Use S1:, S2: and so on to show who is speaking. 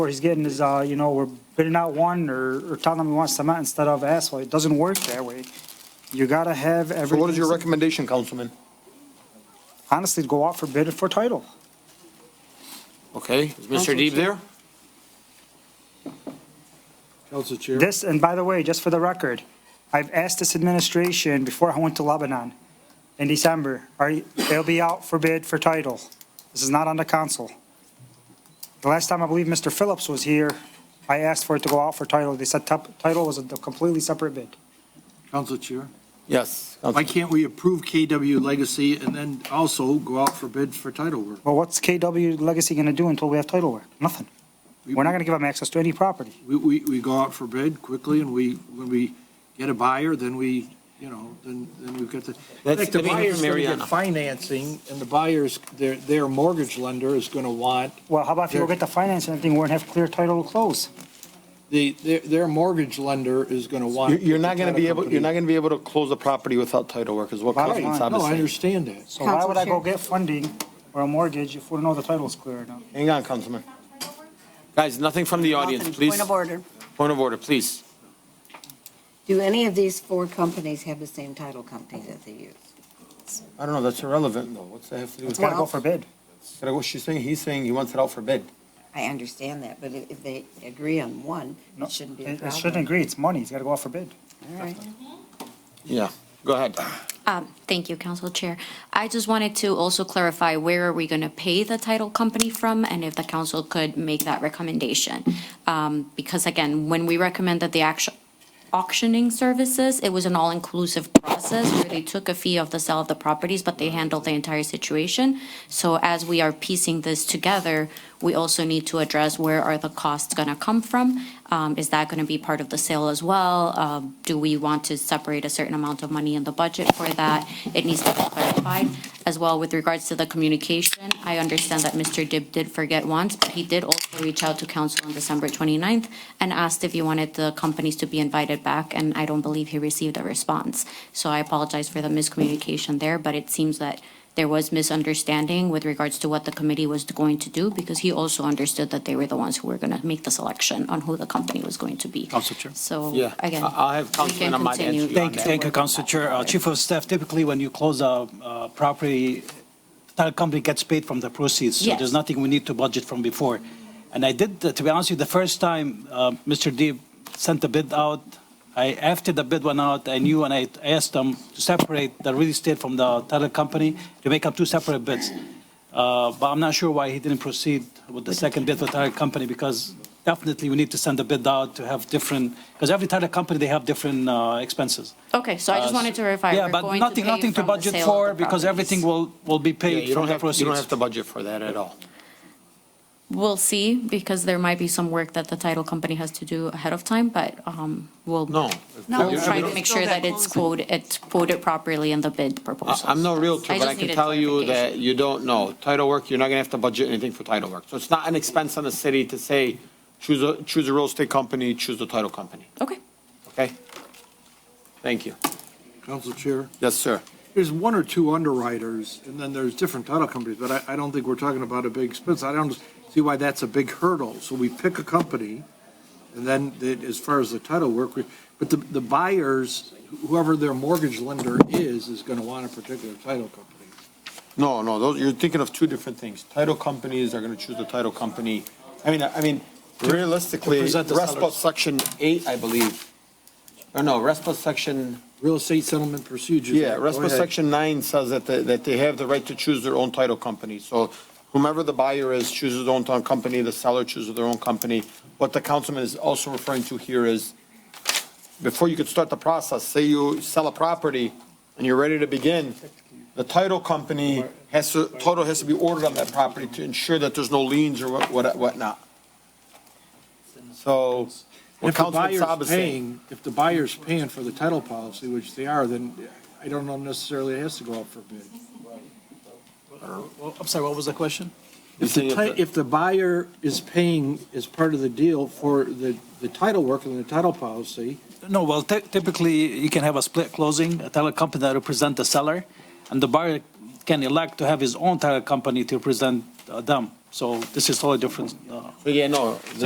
S1: What he's getting is, uh, you know, we're bidding out one or, or telling them we want cement instead of asphalt. It doesn't work that way. You gotta have
S2: So
S1: everything.
S2: what is your recommendation, Councilman?
S1: Honestly, go out for bid for title.
S2: Okay, is Mr. Deeb there?
S3: Council Chair,
S1: This, and by the way, just for the record, I've asked this administration before I went to Lebanon in December, are, you- they'll be out for bid for title. This is not on the council. The last time I believe Mr. Phillips was here, I asked for it to go out for title. They said tup- title was a completely separate bid.
S3: Council Chair,
S2: Yes.
S3: why can't we approve KW Legacy and then also go out for bid for title work?
S1: Well, what's KW Legacy gonna do until we have title work? Nothing. We're not gonna give them access to any property.
S3: We, we, we go out for bid quickly and we, when we get a buyer, then we, you know, then, then we've got the. In fact, the buyer's gonna get financing and the buyer's, their, their mortgage lender is gonna want,
S1: Well, how about if you go
S3: Sure.
S1: get the finance and everything, we're gonna have clear title to close?
S3: the, their, their mortgage lender is gonna
S2: You're,
S3: want.
S2: you're not gonna be able,
S3: to
S2: you're not gonna be able to close the property without title work, is what
S1: Right.
S2: Councilman Saab is
S3: No, I
S2: saying.
S3: understand that.
S1: So why would I go
S4: Council Chair.
S1: get funding or a mortgage if we don't know the title's clear enough?
S2: Hang on, Councilman.
S5: Guys, nothing from the audience,
S4: Nothing.
S5: please.
S4: Point of order.
S5: Point of order, please.
S4: Do any of these four companies have the same title company that they use?
S2: I don't know, that's irrelevant though. What's that have to do with?
S1: It's gotta go
S4: Well-
S1: for bid.
S2: Gotta go- She's saying, he's saying he wants it out for bid.
S4: I understand that, but if if they agree on one,
S1: No,
S4: it shouldn't be a
S1: It it
S4: problem.
S1: shouldn't agree, it's money, it's gotta go out for bid.
S4: All right.
S5: Yeah, go ahead.
S6: Um, Thank you, Council Chair. I just wanted to also clarify, where are we going to pay the title company from? And if the council could make that recommendation. Um, Because again, when we recommended the action- auctioning services, it was an all-inclusive process where they took a fee of the sale of the properties, but they handled the entire situation. So as we are piecing this together, we also need to address where are the costs going to come from? Um, Is that going to be part of the sale as well? Um, Do we want to separate a certain amount of money in the budget for that? It needs to be clarified. As well, with regards to the communication, I understand that Mr. Dib did forget once, but he did also reach out to council on December 29th and asked if you wanted the companies to be invited back, and I don't believe he received a response. So I apologize for the miscommunication there, but it seems that there was misunderstanding with regards to what the committee was going to do, because he also understood that they were the ones who were going to make the selection on who the company was going to be.
S3: Council Chair.
S6: So,
S5: Yeah,
S6: again.
S5: I- I'll have
S6: we can
S5: Councilman Ahmad answer
S6: continue
S5: you on
S6: to
S7: Thank,
S6: work
S7: thank you,
S6: that
S7: Council Chair. Uh,
S6: forward.
S7: Chief of Staff, typically when you close a uh, property, title company gets paid from the proceeds. So
S6: Yes.
S7: there's nothing we need to budget from before. And I did, uh, to be honest with you, the first time uh, Mr. Deeb sent the bid out, I, after the bid went out, I knew and I asked them to separate the real estate from the title company to make up two separate bids. Uh, But I'm not sure why he didn't proceed with the second bid for title company, because definitely we need to send a bid out to have different, because every title company, they have different uh, expenses.
S6: Okay, so I just
S7: Uh,
S6: wanted to verify.
S7: Yeah,
S6: we're
S7: but
S6: going
S7: nothing,
S6: pay
S7: nothing to
S6: from the
S7: budget
S6: sale of
S7: for,
S6: the
S7: because
S6: properties.
S7: everything will, will be
S5: Yeah,
S7: paid
S5: You
S7: from
S5: don't
S7: the
S5: have, you don't have
S7: proceeds.
S5: to budget for that at all.
S6: We'll see, because there might be some work that the title company has to do ahead of time, but um, we'll.
S5: No.
S4: No,
S6: We'll
S4: it's
S6: try
S4: not.
S6: to make sure that it's quoted, it's quoted properly in the bid
S5: I-
S6: proposal.
S5: I'm no realtor,
S6: I
S5: but
S6: just
S5: I can
S6: needed
S5: tell you that
S6: clarification.
S5: you don't know. Title work, you're not gonna have to budget anything for title work. So it's not an expense on the city to say, choose a, choose a real estate company, choose a title company,
S6: Okay.
S5: okay? Thank you.
S3: Council Chair.
S5: Yes, sir.
S3: There's one or two underwriters, and then there's different title companies, but I, I don't think we're talking about a big expense. I don't see why that's a big hurdle. So we pick a company, and then the- as far as the title work, we- but the, the buyers, whoever their mortgage lender is, is gonna want a particular title company.
S2: No, no, those, you're thinking of two different things. Title companies are gonna choose the title company. I mean, I mean, realistically,
S7: present the
S2: RESPA
S7: sellers.
S2: section eight, I believe. Or no, RESPA section
S3: Real estate settlement procedures.
S2: Yeah,
S3: Act. Go
S2: RESPA
S3: ahead.
S2: Section 9 says that, they- that they have the right to choose their own title company. So whomever the buyer is chooses their own title company, the seller chooses their own company. What the councilman is also referring to here is, before you could start the process, say you sell a property and you're ready to begin, the title company has to, title has to be ordered on that property to ensure that there's no liens or what- what, whatnot. So, what
S3: If the
S2: Councilman Saab
S3: buyer's
S2: is saying.
S3: paying, if the buyer's paying for the title policy, which they are, then I don't know necessarily it has to go out for bid.
S7: Well, I'm sorry, what was the question?
S3: If
S2: You think
S3: the, ti-
S2: if the-
S3: if the buyer is paying as part of the deal for the, the title work and the title policy,
S7: No, well, ty- typically, you can have a split closing, a title company that represent the seller, and the buyer can elect to have his own title company to represent uh, them. So this is totally different. uh,
S2: Yeah, no,